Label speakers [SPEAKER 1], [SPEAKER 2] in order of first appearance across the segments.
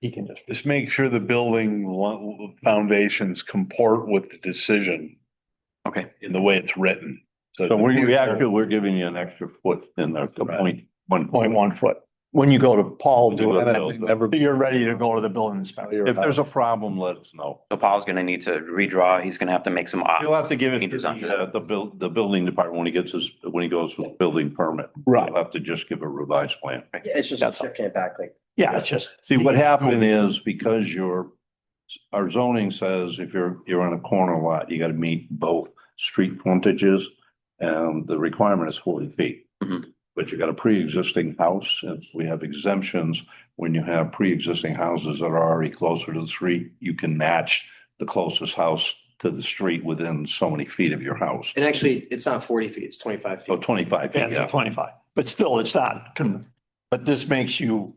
[SPEAKER 1] He can just,
[SPEAKER 2] Just make sure the building lo- foundations comport with the decision
[SPEAKER 3] Okay,
[SPEAKER 2] in the way it's written.
[SPEAKER 4] So we, we actually, we're giving you an extra foot in there, so point one.
[SPEAKER 1] point one foot. When you go to Paul,
[SPEAKER 4] To
[SPEAKER 1] do
[SPEAKER 4] the
[SPEAKER 1] it, and I
[SPEAKER 4] build.
[SPEAKER 1] think never- you're ready to go to the building inspector.
[SPEAKER 4] If there's a problem, let us know.
[SPEAKER 3] so Paul's gonna need to redraw. He's gonna have to make some. op-
[SPEAKER 4] You'll have to give it to
[SPEAKER 3] Changes on
[SPEAKER 4] the, uh,
[SPEAKER 3] that.
[SPEAKER 4] the buil- the building department when he gets his, when he goes for the building permit.
[SPEAKER 1] Right,
[SPEAKER 4] You'll have to just give a revised plan.
[SPEAKER 5] It's just
[SPEAKER 1] That's all.
[SPEAKER 5] shifting it back like.
[SPEAKER 1] yeah, it's just.
[SPEAKER 4] See, what happened is because your, our zoning says if you're, you're on a corner lot, you gotta meet both street frontages. And the requirement is forty feet.
[SPEAKER 3] Mhm.
[SPEAKER 4] But you got a pre-existing house, and we have exemptions, when you have pre-existing houses that are already closer to the street, you can match the closest house to the street within so many feet of your house.
[SPEAKER 5] And actually, it's not forty feet, it's twenty-five
[SPEAKER 4] So
[SPEAKER 5] feet.
[SPEAKER 4] twenty-five feet,
[SPEAKER 1] Yeah,
[SPEAKER 4] yeah.
[SPEAKER 1] twenty-five, but still, it's not, con- but this makes you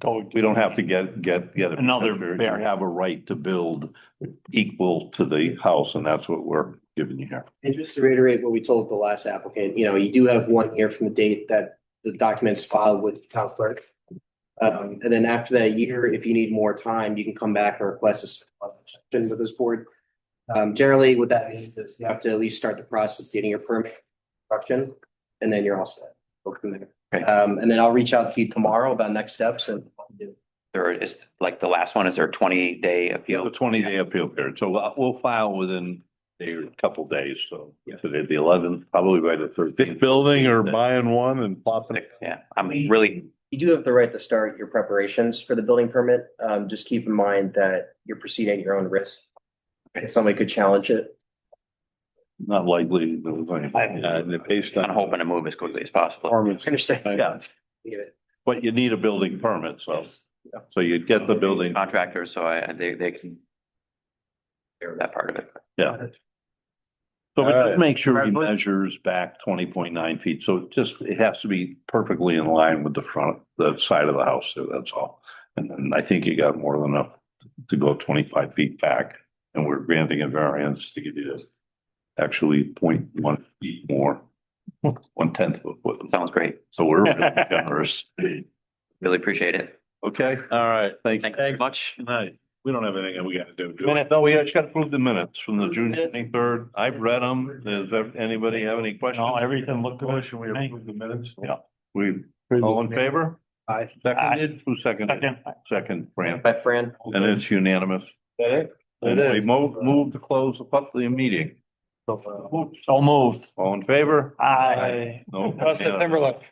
[SPEAKER 1] go,
[SPEAKER 4] We don't have to get, get, get. a-
[SPEAKER 1] Another
[SPEAKER 4] You
[SPEAKER 1] variant.
[SPEAKER 4] have a right to build equal to the house and that's what we're giving you here.
[SPEAKER 5] And just to reiterate what we told the last applicant, you know, you do have one year from the date that the documents filed with the town clerk. Um, and then after that year, if you need more time, you can come back and request a supplemental session with this board. Um, generally, what that means is you have to at least start the process of getting your permit construction, and then you're all set. Go from there.
[SPEAKER 3] Okay.
[SPEAKER 5] Um, and then I'll reach out to you tomorrow about next steps and what we do.
[SPEAKER 3] There is, like, the last one, is there a twenty day
[SPEAKER 4] The
[SPEAKER 3] appeal?
[SPEAKER 4] twenty day appeal period. So we'll- we'll file within a couple days. So today, the eleventh, probably by the
[SPEAKER 2] Big
[SPEAKER 4] thirteenth.
[SPEAKER 2] building or buying one and popping it.
[SPEAKER 3] Yeah, I'm really,
[SPEAKER 5] You do have the right to start your preparations for the building permit. Um, just keep in mind that you're proceeding at your own risk. And somebody could challenge it.
[SPEAKER 4] Not likely. there was any-
[SPEAKER 2] Uh,
[SPEAKER 4] uh,
[SPEAKER 2] based
[SPEAKER 3] I'm
[SPEAKER 2] on.
[SPEAKER 3] hoping to move as quickly as possible.
[SPEAKER 2] performance.
[SPEAKER 5] Understand.
[SPEAKER 4] Yeah, but you need a building permit. So, so you'd get the building.
[SPEAKER 3] Contractors, so I, they, they can. Hear that part of it.
[SPEAKER 4] So but
[SPEAKER 2] Alright.
[SPEAKER 4] just make sure he measures back twenty point nine feet, so it just, it has to be perfectly in line with the front, the side of the house, so that's all. And then I think you got more than enough to go twenty-five feet back, and we're granting a variance to give you this. Actually, point one feet more, one tenth of a foot,
[SPEAKER 3] Sounds great.
[SPEAKER 4] so we're really generous,
[SPEAKER 3] Really appreciate it.
[SPEAKER 4] okay?
[SPEAKER 2] All right.
[SPEAKER 4] Thank you.
[SPEAKER 3] Thank you very much.
[SPEAKER 2] Night. We don't have anything we gotta do. do we?
[SPEAKER 4] Minute, no, we just gotta approve the minutes from the June twenty-third, I've read them, does anybody have any questions?
[SPEAKER 1] no, everything looked good.
[SPEAKER 2] Motion, we approve the minutes?
[SPEAKER 4] Yeah. We, all in favor?
[SPEAKER 5] Aye.
[SPEAKER 4] Seconded, who seconded?
[SPEAKER 1] Second,
[SPEAKER 4] Second, Fran,
[SPEAKER 5] Bye, Fran.
[SPEAKER 4] and it's unanimous.
[SPEAKER 2] That
[SPEAKER 4] And
[SPEAKER 2] It
[SPEAKER 4] we
[SPEAKER 2] is.
[SPEAKER 4] move, move to close the public meeting.
[SPEAKER 1] so moved.
[SPEAKER 4] All in favor?
[SPEAKER 1] I.
[SPEAKER 4] No. Uh,
[SPEAKER 2] Plus, I've never left.